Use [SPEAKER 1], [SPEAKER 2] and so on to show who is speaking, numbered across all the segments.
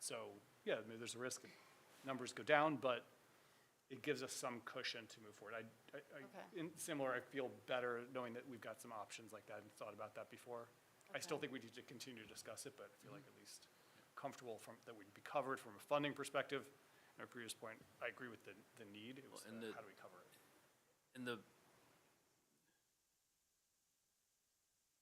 [SPEAKER 1] So, yeah, I mean, there's a risk that numbers go down, but it gives us some cushion to move forward. I, I- I,
[SPEAKER 2] Okay.
[SPEAKER 1] in similar, I feel better knowing that we've got some options like that and thought about that before. I still
[SPEAKER 2] Okay.
[SPEAKER 1] think we need to continue to discuss it, but I feel like at least comfortable from, that we'd be covered from a funding perspective. And our previous point, I agree with the, the need, it was
[SPEAKER 3] Well, and
[SPEAKER 1] the,
[SPEAKER 3] the-
[SPEAKER 1] how do we cover it?
[SPEAKER 3] And the,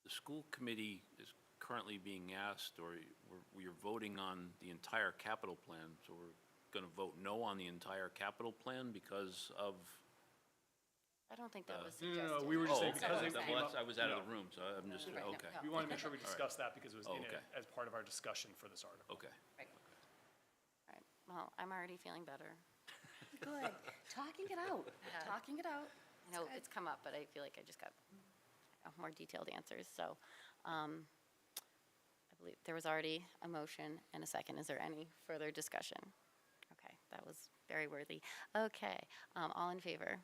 [SPEAKER 3] the school committee is currently being asked, or we're, we're voting on the entire capital plan, so we're going to vote no on the entire capital plan because of.
[SPEAKER 2] I don't think that was
[SPEAKER 1] Uh, No, no,
[SPEAKER 2] suggested.
[SPEAKER 1] no, we were just
[SPEAKER 3] Oh,
[SPEAKER 1] saying
[SPEAKER 3] okay,
[SPEAKER 1] because
[SPEAKER 2] it
[SPEAKER 3] that- well,
[SPEAKER 2] came
[SPEAKER 3] that's-
[SPEAKER 1] up-
[SPEAKER 3] I was out of the
[SPEAKER 1] no.
[SPEAKER 3] room, so I'm just,
[SPEAKER 2] Right, no,
[SPEAKER 3] okay,
[SPEAKER 2] no.
[SPEAKER 1] We want to make sure we discuss that because it was
[SPEAKER 3] Oh,
[SPEAKER 1] in it
[SPEAKER 3] okay.
[SPEAKER 1] as part of our discussion for this article.
[SPEAKER 3] okay.
[SPEAKER 2] Right. Right. Well, I'm already feeling better.
[SPEAKER 4] Good, talking it out,
[SPEAKER 2] Yeah.
[SPEAKER 4] talking it out.
[SPEAKER 2] I know it's come up, but I feel like I just got uh, more detailed answers, so um, I believe there was already a motion and a second. Is there any further discussion? Okay, that was very worthy. Okay, um, all in favor?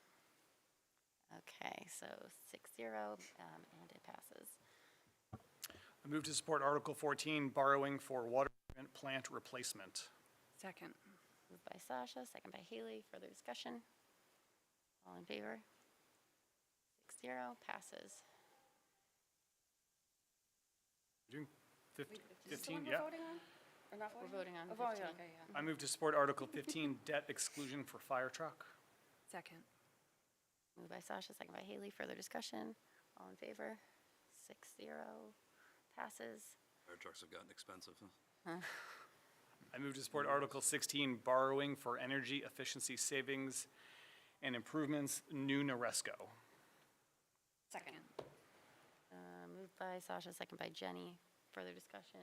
[SPEAKER 2] Okay, so six zero, um, and it passes.
[SPEAKER 3] Oh.
[SPEAKER 1] I move to support Article 14, borrowing for water treatment plant replacement.
[SPEAKER 4] Second.
[SPEAKER 2] Moved by Sasha, second by Haley. Further discussion? All in favor? Six zero, passes.
[SPEAKER 1] We're doing fif-
[SPEAKER 4] Is this the
[SPEAKER 1] 15,
[SPEAKER 4] one we're
[SPEAKER 1] yeah.
[SPEAKER 4] voting on? Or not
[SPEAKER 2] We're
[SPEAKER 4] voting?
[SPEAKER 2] voting on
[SPEAKER 4] Oh, voting,
[SPEAKER 2] 15.
[SPEAKER 4] okay, yeah.
[SPEAKER 1] I move to support Article 15, debt exclusion for fire truck.
[SPEAKER 4] Second.
[SPEAKER 2] Moved by Sasha, second by Haley. Further discussion? All in favor? Six zero, passes.
[SPEAKER 5] Fire trucks have gotten expensive. huh?
[SPEAKER 1] I move to support Article 16, borrowing for energy efficiency savings and improvements, new Noresco.
[SPEAKER 4] Second.
[SPEAKER 2] Uh, Moved by Sasha, second by Jenny. Further discussion?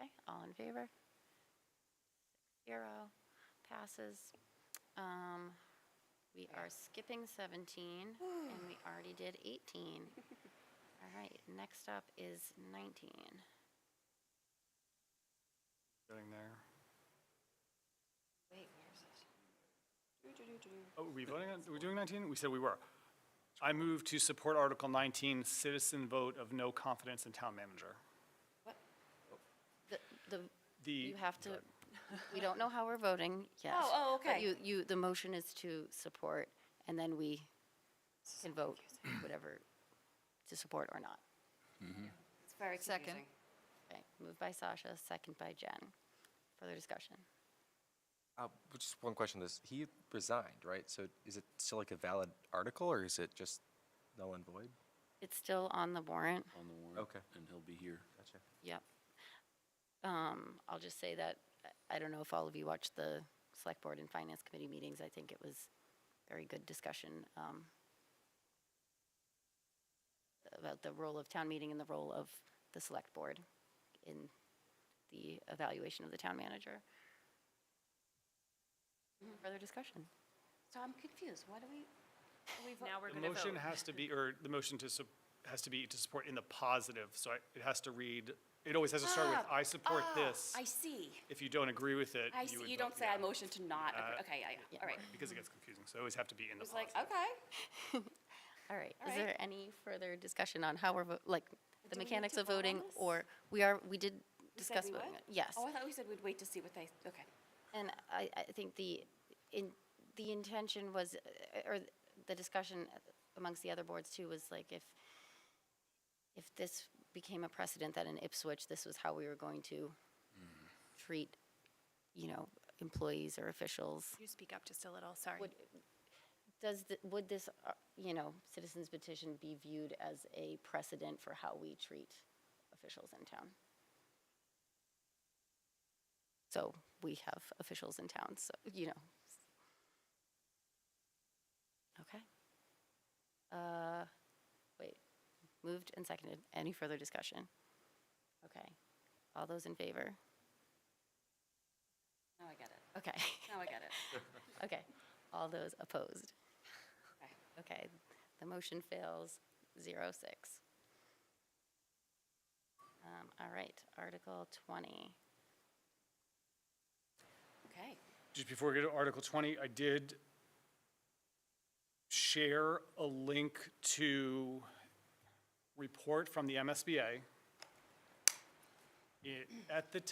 [SPEAKER 2] Okay, all in favor? Six zero, passes. Um, We are skipping 17, and we already did 18. All right, next up is 19.
[SPEAKER 1] Getting there.
[SPEAKER 4] Wait, where's this?
[SPEAKER 1] Oh, are we voting on, are we doing 19? We said we were. I move to support Article 19, citizen vote of no confidence in town manager.
[SPEAKER 4] What?
[SPEAKER 2] The- The,
[SPEAKER 1] The.
[SPEAKER 2] you have to, we don't know how we're voting yet.
[SPEAKER 4] Oh, oh,
[SPEAKER 2] But
[SPEAKER 4] okay.
[SPEAKER 2] you, you, the motion is to support, and then we can vote whatever to support or not.
[SPEAKER 4] It's very
[SPEAKER 6] Second.
[SPEAKER 4] confusing.
[SPEAKER 2] Okay, moved by Sasha, second by Jen. Further discussion?
[SPEAKER 7] Uh, but just one question: on This he resigned, right? So is it still like a valid article, or is it just null and void?
[SPEAKER 2] It's still on the warrant?
[SPEAKER 3] On the warrant.
[SPEAKER 7] Okay.
[SPEAKER 3] And he'll be here.
[SPEAKER 7] Gotcha.
[SPEAKER 2] Yep. Um, I'll just say that, I- I don't know if all of you watched the Select Board and Finance Committee meetings. I think it was very good discussion um, about the role of town meeting and the role of the Select Board in the evaluation of the town manager. Further discussion?
[SPEAKER 4] So I'm confused, what do we, are we vote?
[SPEAKER 8] Now we're
[SPEAKER 1] The
[SPEAKER 8] going to vote.
[SPEAKER 1] motion has to be, or the motion to, sup- has to be to support in the positive, so I- it has to read, it always has to start with,
[SPEAKER 4] Ah,
[SPEAKER 1] I support
[SPEAKER 4] ah,
[SPEAKER 1] this.
[SPEAKER 4] I see,
[SPEAKER 1] If you don't agree with it,
[SPEAKER 4] I
[SPEAKER 1] you would
[SPEAKER 4] see, you
[SPEAKER 1] vote
[SPEAKER 4] don't say I
[SPEAKER 1] no.
[SPEAKER 4] motion to not, agree.
[SPEAKER 1] Uh,
[SPEAKER 4] okay, I-
[SPEAKER 2] yeah.
[SPEAKER 4] all right.
[SPEAKER 1] Right, Because it gets confusing, so it always have to be in the
[SPEAKER 4] It was like,
[SPEAKER 1] positive.
[SPEAKER 4] okay.
[SPEAKER 2] All right,
[SPEAKER 4] All
[SPEAKER 2] is
[SPEAKER 4] right.
[SPEAKER 2] there any further discussion on how we're, vo- like, the
[SPEAKER 4] Do we need
[SPEAKER 2] mechanics
[SPEAKER 4] to
[SPEAKER 2] of
[SPEAKER 4] vote on
[SPEAKER 2] voting?
[SPEAKER 4] this?
[SPEAKER 2] Or, we are, we did
[SPEAKER 4] You said
[SPEAKER 2] discuss
[SPEAKER 4] we
[SPEAKER 2] voting
[SPEAKER 4] would?
[SPEAKER 2] it, yes.
[SPEAKER 4] Oh, I thought we said we'd wait to see what they, okay.
[SPEAKER 2] And I, I think the, in, the intention was, uh, or the discussion amongst the other boards too, was like if, if this became a precedent that in Ipswich, this was how we were going to treat, you know, employees or officials.
[SPEAKER 8] You speak up just a little, sorry.
[SPEAKER 2] Would, does, th- would this, uh, you know, citizens petition be viewed as a precedent for how we treat officials in town? So we have officials in town, so, you know. Okay. Uh, Wait, moved and seconded. Any further discussion? Okay. All those in favor?
[SPEAKER 4] Now I get it,
[SPEAKER 2] Okay,
[SPEAKER 4] now I get it.
[SPEAKER 2] okay. All those opposed?
[SPEAKER 4] Okay.
[SPEAKER 2] Okay, the motion fails, zero six. Um, All right, Article 20.
[SPEAKER 4] Okay,
[SPEAKER 1] Just before we get to Article 20, I did share a link to report from the MSBA. It, at the